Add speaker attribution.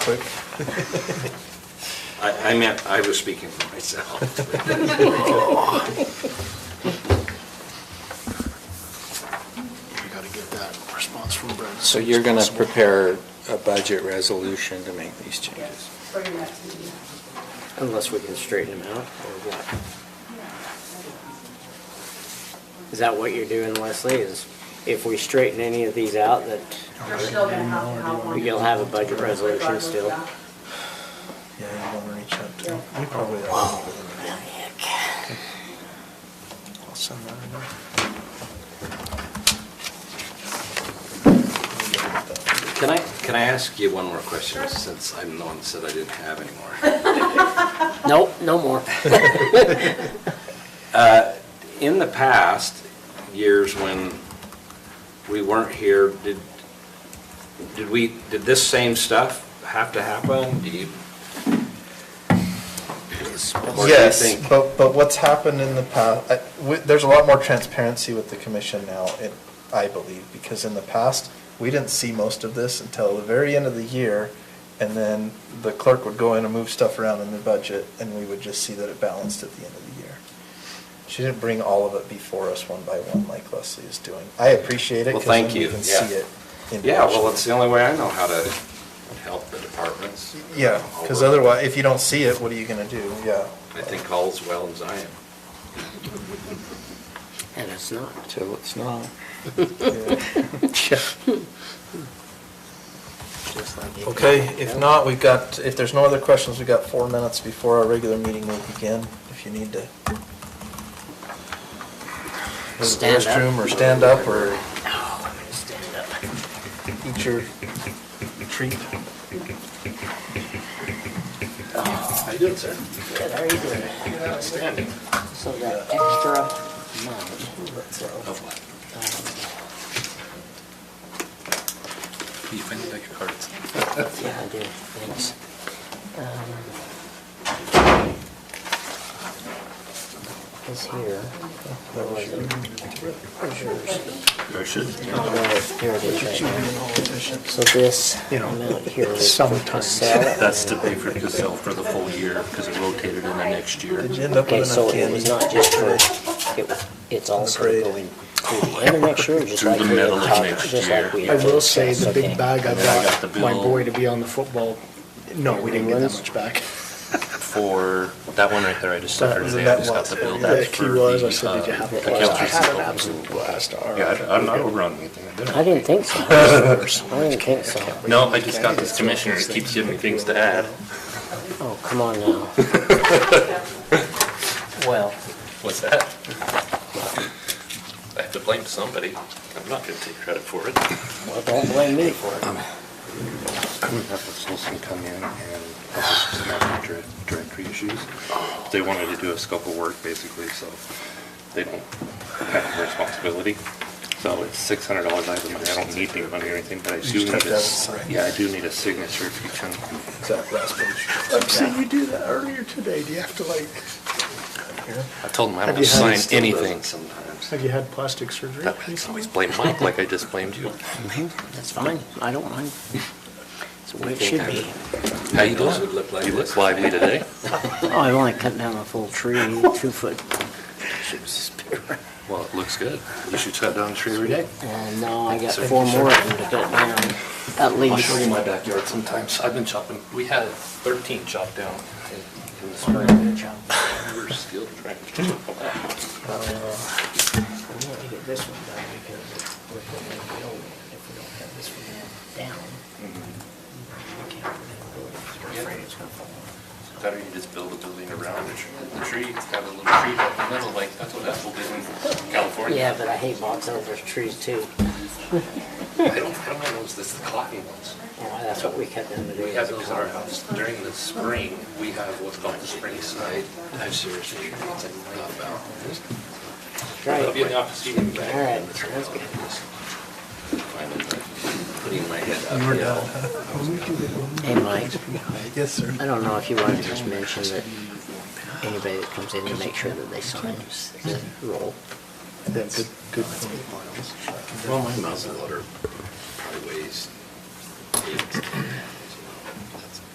Speaker 1: quick.
Speaker 2: I I meant, I was speaking for myself.
Speaker 3: We gotta get that response from Brad. as
Speaker 4: So
Speaker 3: soon as
Speaker 4: you're going to
Speaker 3: possible.
Speaker 4: prepare a budget resolution to make these changes?
Speaker 5: Yes, for your next meeting.
Speaker 6: Unless we can straighten them out, or what? Is that what you're doing, Leslie, is if we straighten any of these out, that
Speaker 5: You're still gonna have to have one.
Speaker 6: You'll have a budget resolution still.
Speaker 5: Regardless of
Speaker 1: Yeah, you want to reach out to,
Speaker 5: Yeah.
Speaker 1: we probably. Wow. I'll send that in there.
Speaker 2: Can I, can I ask you one more question, since I'm the one that said I didn't have anymore?
Speaker 6: Nope, no more.
Speaker 2: In the past, years when we weren't here, did, did we, did this same stuff have to happen? Do you? Or do you
Speaker 1: Yes,
Speaker 2: think-
Speaker 1: but, but what's happened in the past, there's a lot more transparency with the commission now, it- I believe, because in the past, we didn't see most of this until the very end of the year, and then the clerk would go in and move stuff around in the budget, and we would just see that it balanced at the end of the year. She didn't bring all of it before us one by one like Leslie is doing. I appreciate it,
Speaker 2: Well,
Speaker 1: because then
Speaker 2: thank
Speaker 1: we
Speaker 2: you,
Speaker 1: can
Speaker 2: yeah.
Speaker 1: see it. in
Speaker 2: Yeah, well,
Speaker 1: action.
Speaker 2: it's the only way I know how to help the departments.
Speaker 1: Yeah, because otherwise, if you don't see it, what are you gonna do? Yeah.
Speaker 2: I think all's well as I am.
Speaker 6: And it's not.
Speaker 4: Till it's not.
Speaker 1: Yeah.
Speaker 6: just like it-
Speaker 1: Okay, if not, we've got, if there's no other questions, we've got four minutes before our regular meeting will begin, if you need to. Use the
Speaker 6: Stand up.
Speaker 1: restroom Or stand up, or
Speaker 6: Oh, I'm gonna stand up.
Speaker 1: eat your treat.
Speaker 2: How you doing, sir?
Speaker 6: Good, how are you doing?
Speaker 2: Outstanding.
Speaker 6: So that extra amount,
Speaker 2: Of what?
Speaker 6: um,
Speaker 2: You finally got your cards.
Speaker 6: Yeah, I do, thanks. Um, This here. Where was it? Where's yours? Oh, Here it is right now. So this amount here is for Casella.
Speaker 7: That's to pay for Casell for the full year, because it rotated in the next year.
Speaker 1: Did you end up
Speaker 6: Okay,
Speaker 1: with
Speaker 6: so
Speaker 1: enough
Speaker 6: it was
Speaker 1: candy?
Speaker 6: not just for, it was, it's also
Speaker 1: parade.
Speaker 6: going through the end of next year, just
Speaker 7: Through
Speaker 6: like
Speaker 7: the
Speaker 6: we had
Speaker 7: middle of
Speaker 6: talked,
Speaker 7: next
Speaker 6: just
Speaker 7: year.
Speaker 6: like we
Speaker 7: I
Speaker 6: had
Speaker 7: will
Speaker 3: I will say, the
Speaker 6: discussed,
Speaker 3: big
Speaker 6: okay.
Speaker 3: bag I
Speaker 7: And then I got
Speaker 3: bought
Speaker 7: the
Speaker 3: my
Speaker 7: bill.
Speaker 3: boy to be on the football, no, we didn't get that
Speaker 6: Remember
Speaker 3: much back.
Speaker 7: For, that one right there, I just
Speaker 1: That
Speaker 7: saw her
Speaker 1: was a
Speaker 7: today, I
Speaker 1: net
Speaker 7: just got the
Speaker 1: loss.
Speaker 7: bill.
Speaker 1: Yeah,
Speaker 7: That's
Speaker 3: Like
Speaker 7: for
Speaker 3: he was,
Speaker 7: the,
Speaker 3: I said, did you
Speaker 7: uh,
Speaker 3: have a
Speaker 7: accounts
Speaker 3: blast? I had an
Speaker 7: receivable.
Speaker 3: absolute blast. All
Speaker 7: Yeah,
Speaker 3: right.
Speaker 7: I- I'm not over on anything, I didn't.
Speaker 6: I didn't think so. I didn't think so.
Speaker 7: No, I just got this commissioner, it keeps giving me things to add.
Speaker 6: Oh, come on now. Well,
Speaker 7: What's that? I have to blame somebody. I'm not gonna take credit for it.
Speaker 6: well, don't blame me for it.
Speaker 7: I'm gonna have the Solson come in and help us with some of the dir- directory issues. They wanted to do a scope of work, basically, so they don't have the responsibility. So it's six hundred dollars I believe. I don't need any money or anything, but I do
Speaker 1: just have
Speaker 7: need
Speaker 1: to have
Speaker 7: a,
Speaker 1: it
Speaker 7: s-
Speaker 1: signed.
Speaker 7: yeah, I do need a signature if you can.
Speaker 1: Exact last page.
Speaker 3: I'm saying Oh, you do that earlier today. Do you have to like,
Speaker 7: I told them I
Speaker 3: Have
Speaker 7: don't
Speaker 3: you had
Speaker 7: sign
Speaker 3: it
Speaker 7: anything.
Speaker 2: Sometimes.
Speaker 3: have you had plastic surgery?
Speaker 7: That- I always blame Mike like I just blamed you.
Speaker 6: That's fine, I don't mind. It's the way it should be.
Speaker 7: How you
Speaker 2: Those would look like
Speaker 7: doing? You
Speaker 2: this.
Speaker 7: look lively today.
Speaker 6: Oh, I want to cut down a full tree, two foot.
Speaker 7: Well, it looks good. You should cut down a tree every day.
Speaker 6: And now I got four more of them to cut down, at
Speaker 7: I'll show you
Speaker 6: least.
Speaker 7: my backyard sometimes. I've been chopping, we had 13 chopped down in- in the spring. We We're still trying to chop them out.
Speaker 6: We want to get this one done because we're going to be old if we don't have this one down. we can't really- We're afraid it's gonna fall.
Speaker 7: Better you just build a building around the tree. The tree, have a little tree up in the middle, like, that's what Apple did in California.
Speaker 6: Yeah, but I hate box elder trees too.
Speaker 7: I don't, I don't know those, this is the cloudy ones.
Speaker 6: Well, That's what we cut down today.
Speaker 7: We have it in our house during the spring, we have what's called the spring side. I've seriously thought about. I'll be in the office, you can be back.
Speaker 6: All right, sounds good.
Speaker 7: Finally,
Speaker 2: Putting my head
Speaker 1: You
Speaker 2: up.
Speaker 1: were done.
Speaker 6: Hey, Mike,
Speaker 1: Yes, sir.
Speaker 6: I don't know if you wanted to just mention that anybody that comes in to make sure that they sign the roll.
Speaker 1: Yeah, good, good.
Speaker 2: Well, my muzzleloader probably weighs eight, ten